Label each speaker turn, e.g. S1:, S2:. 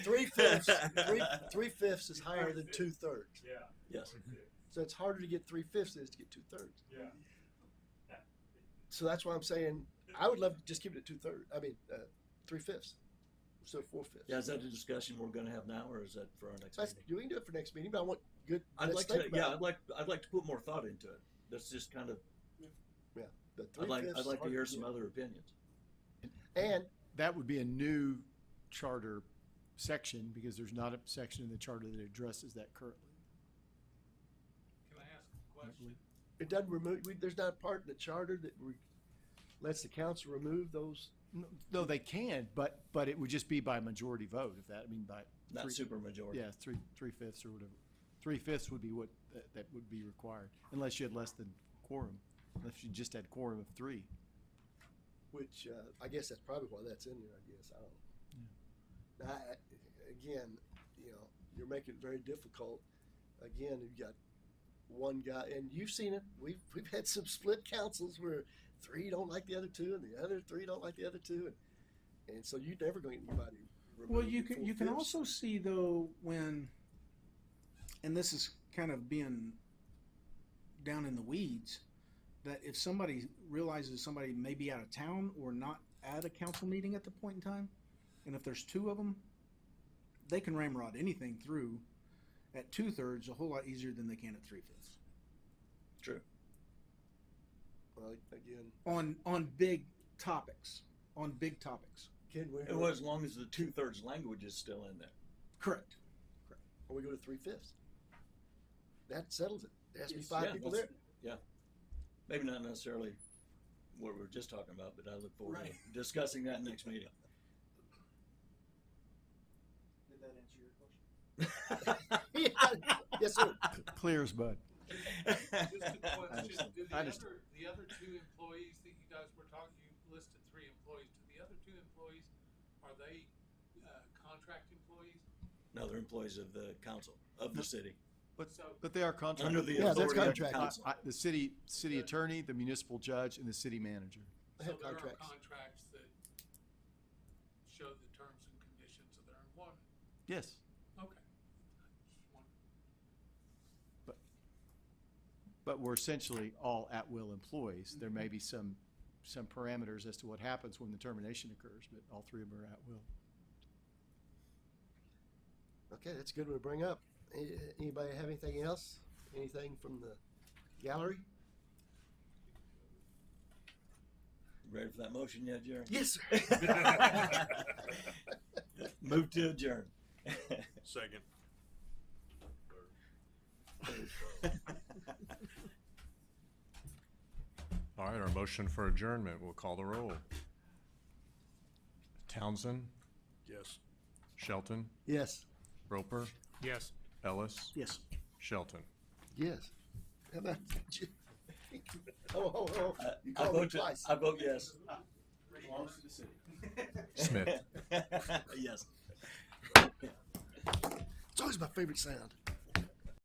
S1: Three fifths, three, three fifths is higher than two thirds.
S2: Yeah,
S1: Yes.
S2: okay,
S1: So it's harder to get three fifths than it is to get two thirds.
S2: yeah.
S1: So that's why I'm saying I would love to just keep it at two thirds. I mean, uh, three fifths. So four fifths.
S3: Yeah, is that a discussion we're gonna have now, or is that for our next
S1: That's,
S3: meeting?
S1: you can do it for next meeting, but I want good.
S3: I'd
S1: let's
S3: like
S1: think
S3: to,
S1: about
S3: yeah,
S1: it.
S3: I'd like, I'd like to put more thought into it. That's just kind of,
S1: The
S3: I'd like,
S1: three-fifths
S3: I'd
S1: is
S3: like to
S1: hard
S3: hear
S1: get.
S3: some other opinions.
S1: And
S4: That would be a new charter section because there's not a section in the charter that addresses that currently.
S2: Can I ask a
S4: I
S2: question?
S4: believe.
S1: it doesn't remove. We, there's not a part in the charter that re, lets the council remove those.
S4: No, No, they can, but, but it would just be by majority vote if that, I mean, by.
S3: Not
S4: three-
S3: super majority.
S4: Yeah, three, three fifths or whatever. Three fifths would be what, that, that would be required, unless you had less than quorum, unless you just had quorum of three.
S1: Which uh, I guess that's probably why that's in there. I guess I don't. know. I- I- again, you know, you're making it very difficult. Again, you've got one guy, and you've seen it. We've we've had some split councils where three don't like the other two, and the other three don't like the other two, and and so you're never going to get anybody.
S5: Well,
S1: removed
S5: you can you can
S1: four-fifths.
S5: also see though when, and this is kind of being down in the weeds, that if somebody realizes somebody may be out of town or not at a council meeting at the point in time, and if there's two of them, they can ramrod anything through at two thirds a whole lot easier than they can at three fifths
S1: Well, again,
S5: on on big topics on big topics.
S1: Ken, where
S3: It was, as long as the two thirds language is still in there.
S5: Correct.
S1: or we go to three fifths. That settles it. There has to be
S3: Yes.
S1: five
S3: Yeah,
S1: people there.
S3: that's- Yeah. Maybe not necessarily what we were just talking about, but I look forward to discussing that next meeting.
S6: Did that answer your question?
S1: yes, sir.
S4: Clear as bud.
S2: Just a question,
S3: Understand.
S2: do the
S4: I understand.
S2: other, the other two employees that you guys were talking, you listed three employees, do the other two employees, are they, uh, contract employees?
S3: No, they're employees of the council, of the city.
S4: But-
S2: So,
S4: But they are contracted.
S3: Under the
S1: Yeah, that's
S3: authority of the
S1: contract.
S3: council.
S4: I- I- The city, city attorney, the municipal judge, and the city manager.
S1: I
S2: so
S1: have
S2: there are
S1: contracts.
S2: contracts that show the terms and conditions of their employment,
S4: Yes.
S2: okay. Just wondering.
S4: But we're essentially all at-will employees. There may be some, some parameters as to what happens when the termination occurs, but all three of them are at-will.
S1: Okay, that's a good one to bring up. A- Anybody have anything else? Anything from the gallery?
S3: Ready for that motion yet, Jerry?
S1: Yes, sir.
S3: Move to adjourn.
S7: Second.
S3: Uh,
S7: All right, our motion for adjournment, we'll call the roll. Townsend,
S2: Yes.
S7: Shelton,
S1: Yes.
S7: Roper,
S2: Yes.
S7: Ellis,
S5: Yes.
S7: Shelton.
S1: Yes. How about you? Oh, oh, oh. You
S3: I
S1: called me
S3: vote, to-
S1: twice.
S3: I vote yes.
S7: Smith.
S3: Yes.
S1: It's always my favorite sound.